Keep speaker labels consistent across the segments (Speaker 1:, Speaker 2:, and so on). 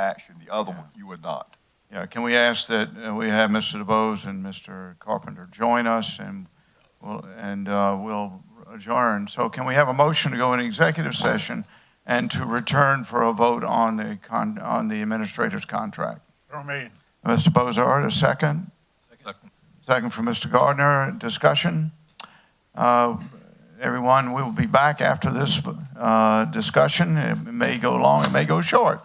Speaker 1: action, the other one, you would not.
Speaker 2: Yeah, can we ask that uh, we have Mr. DeBose and Mr. Carpenter join us and we'll, and uh, we'll adjourn. So can we have a motion to go into executive session and to return for a vote on the con, on the administrator's contract?
Speaker 3: So made.
Speaker 2: Mr. Bozard, a second? Second from Mr. Gardner, discussion? Uh, Everyone, we will be back after this uh, discussion. It may go long, it may go short,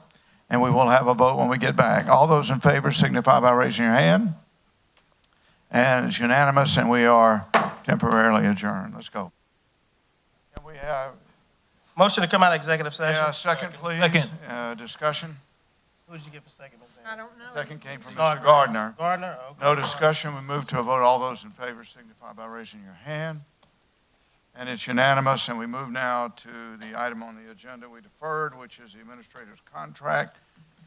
Speaker 2: and we will have a vote when we get back. All those in favor signify by raising your hand. And it's unanimous, and we are temporarily adjourned. Let's go. Can we have,
Speaker 4: Motion to come out of executive session?
Speaker 2: yeah, second, please?
Speaker 4: Second.
Speaker 2: Uh, Discussion?
Speaker 4: Who did you get for second? Ms. Van?
Speaker 5: I don't know.
Speaker 2: Second came from Mr. Gardner.
Speaker 4: Uh, Gardner? Oh, Okay.
Speaker 2: No discussion, we move to a vote. All those in favor signify by raising your hand. And it's unanimous, and we move now to the item on the agenda we deferred, which is the administrator's contract,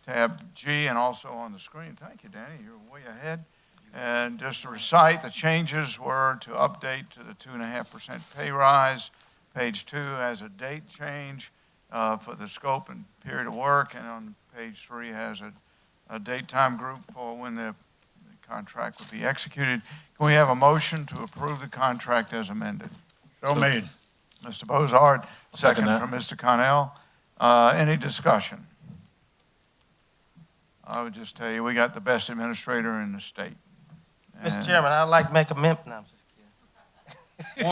Speaker 2: tab G, and also on the screen. Thank you, Danny, you're way ahead. And just to recite, the changes were to update to the two and a half percent pay rise. Page two has a date change uh, for the scope and period of work, and on page three has a a daytime group for when the the contract would be executed. Can we have a motion to approve the contract as amended?
Speaker 3: So made.
Speaker 2: Mr. Bozard, second
Speaker 4: second that.
Speaker 2: from Mr. Connell. Uh, Any discussion? I would just tell you, we got the best administrator in the state.
Speaker 4: Mr.
Speaker 2: And
Speaker 4: Chairman, I'd like to make a mem, no, I'm just kidding.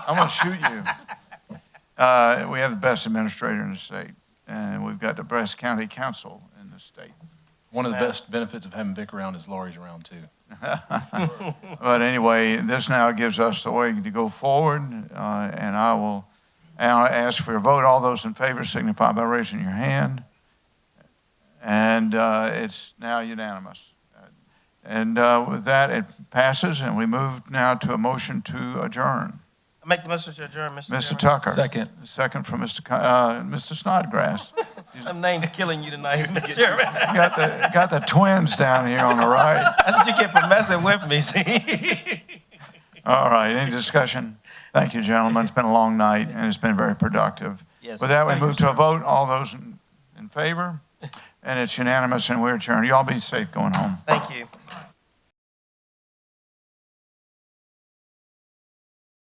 Speaker 2: I'm going to shoot you. Uh, We have the best administrator in the state, and we've got the best county council in the state.
Speaker 6: One of the
Speaker 4: Yeah.
Speaker 6: best benefits of having Vic around is Laurie's around too.
Speaker 2: But anyway, this now gives us the way to go forward, uh, and I will now ask for a vote. All those in favor signify by raising your hand. And uh, it's now unanimous. And uh, with that, it passes, and we move now to a motion to adjourn.
Speaker 4: I make the motion to adjourn, Mr. Chairman.
Speaker 2: Mr. Tucker?
Speaker 6: Second.
Speaker 2: Second from Mr. Con- uh, Mr. Snodgrass.
Speaker 4: Them names killing you tonight, Mr. Chairman.
Speaker 2: Got the, got the twins down here on the right.
Speaker 4: That's what you get for messing with me, see?
Speaker 2: All right, any discussion? Thank you, gentlemen. It's been a long night, and it's been very productive.
Speaker 4: Yes.
Speaker 2: With that, we
Speaker 4: Thank you,
Speaker 2: move to a vote. All those in in favor? And it's unanimous, and we're adjourned. Y'all be safe going home.
Speaker 4: Thank you.